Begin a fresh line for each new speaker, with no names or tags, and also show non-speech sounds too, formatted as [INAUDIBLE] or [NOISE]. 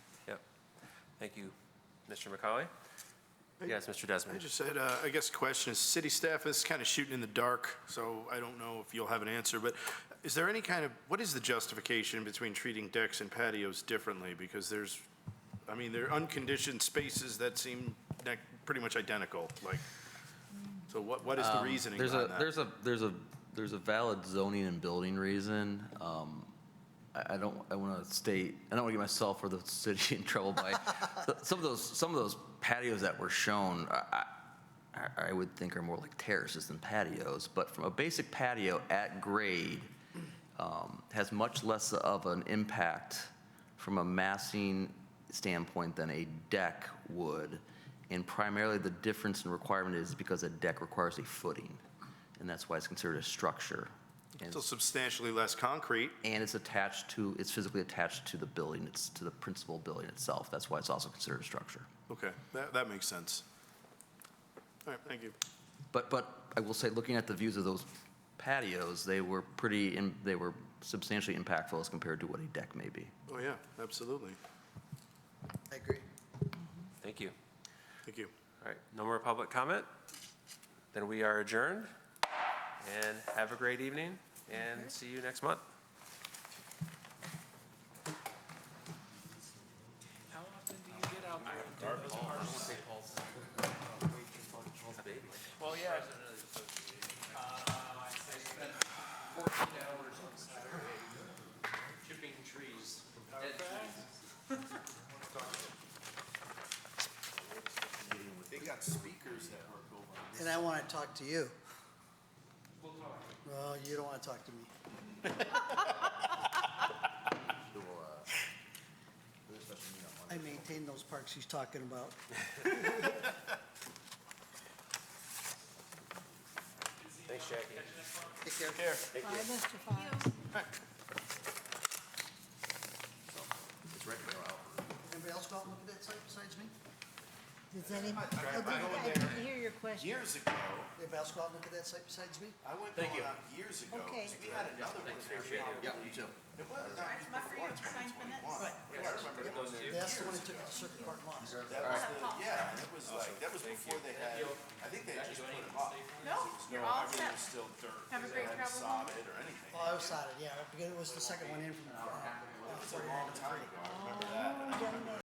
Thank you, Mr. McCauley. Yes, Mr.
I
Desmond.
just had, uh, I guess, question, is city staff is kind of shooting in the dark, so I don't know if you'll have an answer, but is there any kind of, what is the justification between treating decks and patios differently? Because there's, I mean, they're unconditioned spaces that seem nec- pretty much identical, like, so what, what is the reasoning
Um, There's a,
behind that?
there's a, there's a, there's a valid zoning and building reason. Um, I, I don't, I want to state, I don't want to get myself or the [LAUGHS] city in trouble
[LAUGHS]
by, some of those, some of those patios that were shown, I, I, I would think are more like terraces than patios, but from a basic patio at grade, um, has much less of an impact from a massing standpoint than a deck would. And primarily, the difference in requirement is because a deck requires a footing, and that's why it's considered a structure. And,
Still substantially less concrete,
and it's attached to, it's physically attached to the building, it's to the principal building itself. That's why it's also considered a structure.
okay, that, that makes sense. All right, thank you.
But, but I will say, looking at the views of those patios, they were pretty, im- they were substantially impactful as compared to what a deck may be.
Oh, yeah, absolutely,
I agree.
Thank you.
thank you.
All right, no more public comment? Then we are adjourned. And have a great evening, and see you next month.
How often do you get out there and do those parks? Well, yeah. Uh, I spent fourteen hours on Saturday chipping trees, dead trees.
And I want to talk to you. We'll talk. No, you don't want to talk to me. I maintain those parks he's talking about.
Thanks, Jackie.
Take care.
Bye, Mr. Fox.
Anybody else go out and look at that site besides me?
Does any, I didn't hear your question.
Years ago,
Anybody else go out and look at that site besides me?
I went going on years ago,
Okay.
'cause we had another one. Yeah, me too. It was, not even before 2021.
That's the one that took the circuit park lost.
That was the, yeah, and it was like, that was before they had, I think they just put it up.
No, you're all
Everything
set.
was still dirt.
Have a
They
great
hadn't
travel home.
sodded or anything.
Oh, I was sorry, yeah, because it was the second one in uh, from the front.
It was a long time ago. I
Oh,
remember
done that.